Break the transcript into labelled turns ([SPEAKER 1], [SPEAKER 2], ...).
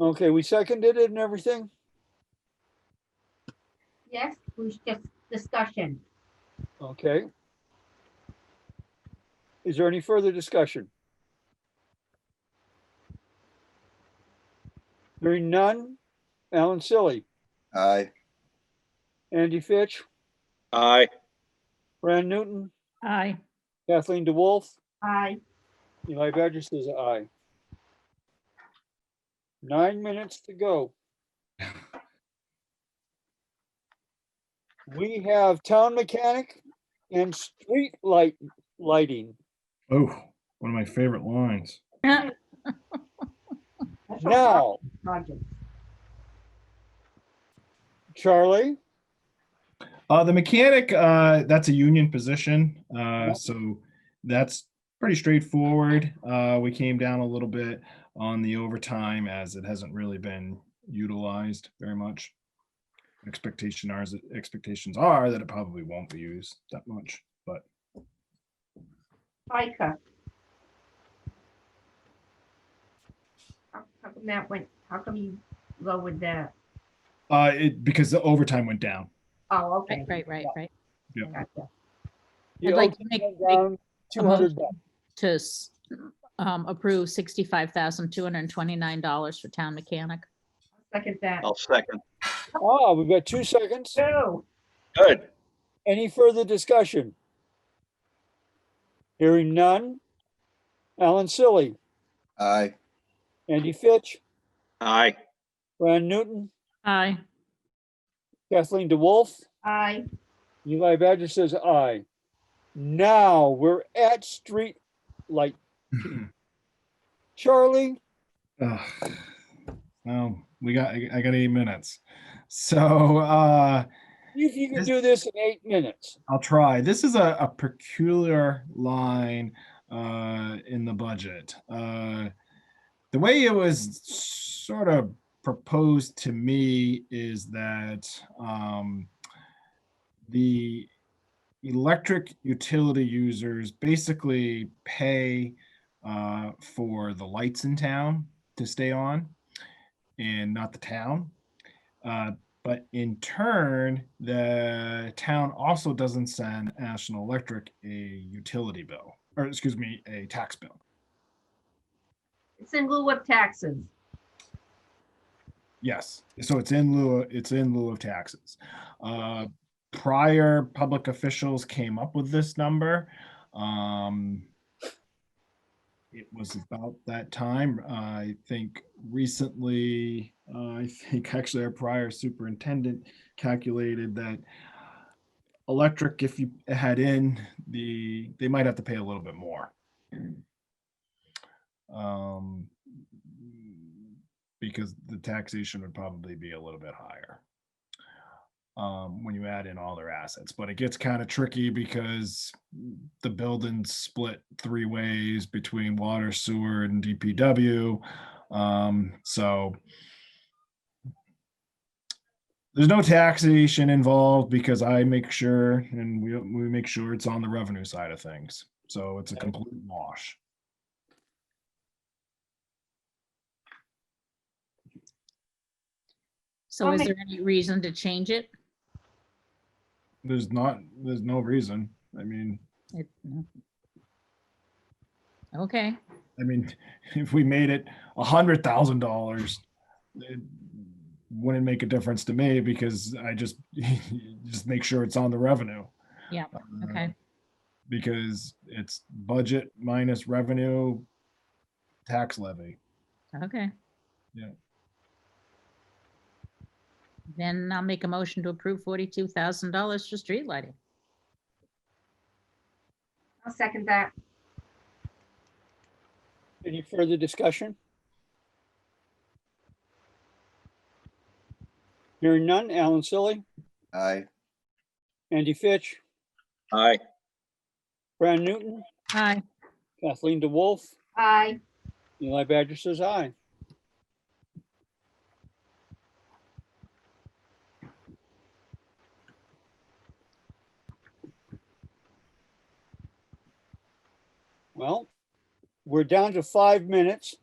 [SPEAKER 1] Okay, we seconded it and everything?
[SPEAKER 2] Yes, it was just discussion.
[SPEAKER 1] Okay. Is there any further discussion? Hearing none. Alan Silly,
[SPEAKER 3] Aye.
[SPEAKER 1] Andy Fitch,
[SPEAKER 4] Aye.
[SPEAKER 1] Fran Newton,
[SPEAKER 5] Aye.
[SPEAKER 1] Kathleen DeWolf,
[SPEAKER 2] I,
[SPEAKER 1] Eli Badger says aye. Nine minutes to go. We have town mechanic and street light lighting.
[SPEAKER 6] Oh, one of my favorite lines.
[SPEAKER 2] that's a
[SPEAKER 1] Now,
[SPEAKER 2] project.
[SPEAKER 1] Charlie,
[SPEAKER 6] Uh, the mechanic, uh, that's a union position. Uh, so that's pretty straightforward. Uh, we came down a little bit on the overtime as it hasn't really been utilized very much. Expectation are, expectations are that it probably won't be used that much, but
[SPEAKER 2] FICA. How how come that went, how come you lowered that?
[SPEAKER 6] uh, it, because the overtime went down.
[SPEAKER 2] Oh, okay.
[SPEAKER 5] Right, right, right, right.
[SPEAKER 2] Gotcha.
[SPEAKER 1] you
[SPEAKER 5] I'd like to make, make
[SPEAKER 1] two hundred bucks.
[SPEAKER 5] to s- um, approve sixty-five thousand, two hundred and twenty-nine dollars for town mechanic.
[SPEAKER 2] Second that.
[SPEAKER 4] I'll second.
[SPEAKER 1] Ah, we've got two seconds.
[SPEAKER 2] Two,
[SPEAKER 4] Good.
[SPEAKER 1] Any further discussion? Hearing none. Alan Silly,
[SPEAKER 3] Aye.
[SPEAKER 1] Andy Fitch,
[SPEAKER 4] Aye.
[SPEAKER 1] Ron Newton,
[SPEAKER 5] Aye.
[SPEAKER 1] Kathleen DeWolf,
[SPEAKER 2] I,
[SPEAKER 1] Eli Badger says aye. Now we're at street light. Charlie,
[SPEAKER 6] Ugh. Well, we got, I I got eight minutes. So, uh,
[SPEAKER 1] if you can
[SPEAKER 6] This-
[SPEAKER 1] do this in eight minutes.
[SPEAKER 6] I'll try. This is a, a peculiar line uh, in the budget. Uh, the way it was sort of proposed to me is that um, the electric utility users basically pay uh, for the lights in town to stay on and not the town. Uh, but in turn, the town also doesn't send National Electric a utility bill, or excuse me, a tax bill.
[SPEAKER 2] it's in lieu of taxes.
[SPEAKER 6] Yes, so it's in lieu, it's in lieu of taxes. Uh, Prior public officials came up with this number. Um, It was about that time, I think recently, uh, I think actually our prior superintendent calculated that electric, if you had in the, they might have to pay a little bit more. Um, Because the taxation would probably be a little bit higher. Um, when you add in all their assets, but it gets kind of tricky because the building's split three ways between water, sewer and DPW. Um, so there's no taxation involved because I make sure and we, we make sure it's on the revenue side of things. So it's a complete wash.
[SPEAKER 5] So
[SPEAKER 2] I'll
[SPEAKER 5] is
[SPEAKER 2] make-
[SPEAKER 5] there any reason to change it?
[SPEAKER 6] There's not, there's no reason. I mean,
[SPEAKER 5] It- no. Okay,
[SPEAKER 6] I mean, if we made it a hundred thousand dollars, it wouldn't make a difference to me because I just, just make sure it's on the revenue.
[SPEAKER 5] Yeah,
[SPEAKER 6] Uh,
[SPEAKER 5] okay,
[SPEAKER 6] Because it's budget minus revenue, tax levy.
[SPEAKER 5] okay.
[SPEAKER 6] Yeah.
[SPEAKER 5] Then I'll make a motion to approve forty-two thousand dollars for street lighting.
[SPEAKER 2] I'll second that.
[SPEAKER 1] Any further discussion? Hearing none. Alan Silly,
[SPEAKER 3] Aye.
[SPEAKER 1] Andy Fitch,
[SPEAKER 4] Aye.
[SPEAKER 1] Fran Newton,
[SPEAKER 5] Aye.
[SPEAKER 1] Kathleen DeWolf,
[SPEAKER 2] I,
[SPEAKER 1] Eli Badger says aye. Well, we're down to five minutes.